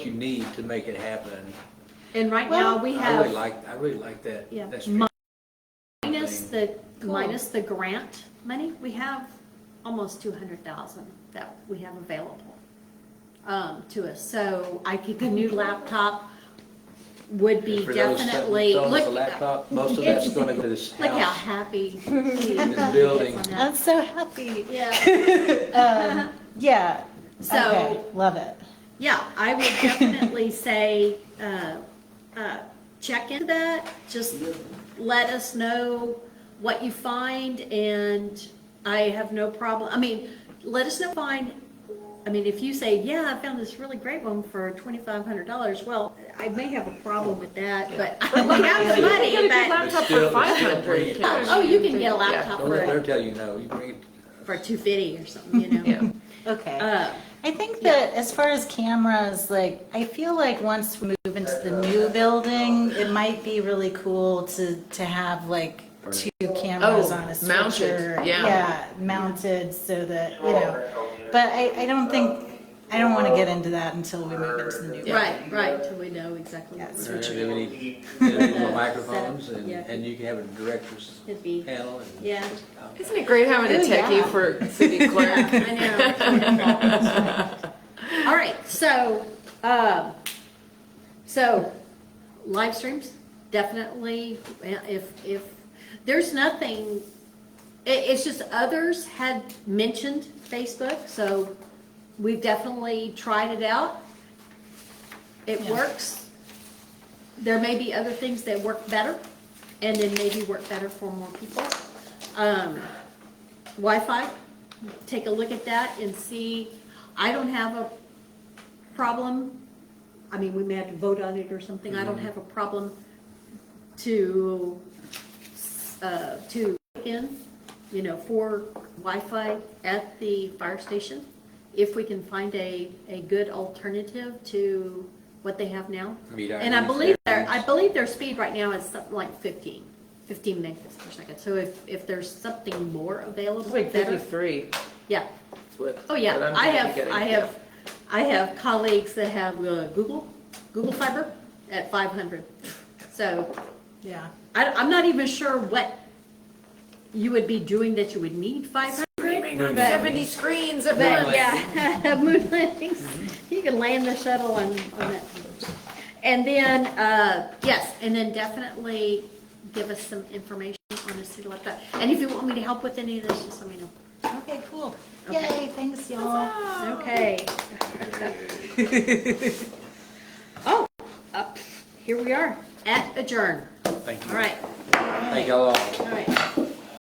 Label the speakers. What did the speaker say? Speaker 1: you need to make it happen.
Speaker 2: And right
Speaker 3: Well-
Speaker 2: now, we
Speaker 1: I really
Speaker 2: have,
Speaker 1: like, I really like that.
Speaker 2: Yeah.
Speaker 1: That's
Speaker 2: Mi- minus the,
Speaker 3: Cool.
Speaker 2: minus the grant money, we have almost two hundred thousand that we have available um, to us. So I think a new laptop would be
Speaker 1: For those
Speaker 2: definitely,
Speaker 1: selling us a
Speaker 2: look,
Speaker 1: laptop, Most of that's
Speaker 2: It's-
Speaker 1: gonna go to this
Speaker 2: look how
Speaker 1: house.
Speaker 2: happy. he is
Speaker 1: building.
Speaker 2: on
Speaker 3: I'm
Speaker 2: that.
Speaker 3: so happy.
Speaker 2: Yeah,
Speaker 3: Um, yeah.
Speaker 2: So-
Speaker 3: okay, love it.
Speaker 2: yeah, I would definitely say, uh, uh, check into that, just let us know what you find, and I have no problem, I mean, let us know, find, I mean, if you say, yeah, I found this really great one for twenty-five hundred dollars, well, I may have a problem with that, but we have the
Speaker 4: You can
Speaker 2: money,
Speaker 4: get a
Speaker 2: but,
Speaker 1: Still-
Speaker 4: laptop for
Speaker 1: still
Speaker 4: five hundred.
Speaker 1: bring it.
Speaker 2: oh, you can get a laptop
Speaker 1: Don't let her
Speaker 2: for,
Speaker 1: tell you no, you bring it.
Speaker 2: for two fifty or something, you know?
Speaker 4: Yeah.
Speaker 3: Okay.
Speaker 2: Uh,
Speaker 3: I think that as far as cameras, like, I feel like once we move into the new building, it might be really cool to, to have like two cameras
Speaker 4: Oh,
Speaker 3: on a switcher.
Speaker 4: mounted, yeah.
Speaker 3: mounted so that, you know, but I, I don't think, I don't want to get into that until we move into the new building.
Speaker 2: Right, right, till we know exactly. what
Speaker 3: Yes.
Speaker 2: we're-
Speaker 1: There are any- there are
Speaker 2: Yeah.
Speaker 1: Microphones and,
Speaker 2: Yeah.
Speaker 1: and you can have a director's
Speaker 2: It'd be,
Speaker 1: panel and.
Speaker 2: Yeah.
Speaker 4: Isn't it great having a
Speaker 3: Ooh,
Speaker 4: techie
Speaker 3: yeah.
Speaker 4: for city
Speaker 2: I
Speaker 4: clerk?
Speaker 2: know. All right, so, um, so live streams, definitely, if, if, there's nothing, it, it's just others had mentioned Facebook, so we've definitely tried it out. It
Speaker 3: Yeah.
Speaker 2: works. There may be other things that work better, and then maybe work better for more people. Um, Wi-Fi, take a look at that and see, I don't have a problem. I mean, we may have to vote on it or something, I don't have a problem to, uh, to in, you know, for Wi-Fi at the fire station. If we can find a, a good alternative to what they have now.
Speaker 1: Meet our
Speaker 2: And I
Speaker 1: needs,
Speaker 2: believe
Speaker 1: their
Speaker 2: their, I
Speaker 1: needs.
Speaker 2: believe their speed right now is something like 15, 15 megabits per second. So if, if there's something more available,
Speaker 4: Like
Speaker 2: better,
Speaker 4: fifty-three.
Speaker 2: yeah.
Speaker 4: is what-
Speaker 2: Oh,
Speaker 4: what
Speaker 2: yeah,
Speaker 4: I'm
Speaker 2: I
Speaker 4: gonna be
Speaker 2: have,
Speaker 4: getting,
Speaker 2: I
Speaker 4: yeah.
Speaker 2: have, I have colleagues that have uh, Google, Google Fiber at 500. So
Speaker 3: Yeah.
Speaker 2: I, I'm not even sure what you would be doing that you would need 500.
Speaker 1: Moon
Speaker 2: But-
Speaker 4: Seventy screens of
Speaker 1: Moon
Speaker 2: But
Speaker 4: that.
Speaker 2: yeah, moon landings, you can land the shuttle on, on it. And then, uh, yes, and then definitely give us some information on the city like that. And if you want me to help with any of this, just let me know.
Speaker 3: Okay, cool. Yay, thanks y'all.
Speaker 2: Okay. Oh, up, here we are, at adjourn.
Speaker 1: Thank
Speaker 2: All
Speaker 1: you.
Speaker 2: right,
Speaker 1: Thank you all.
Speaker 2: all right.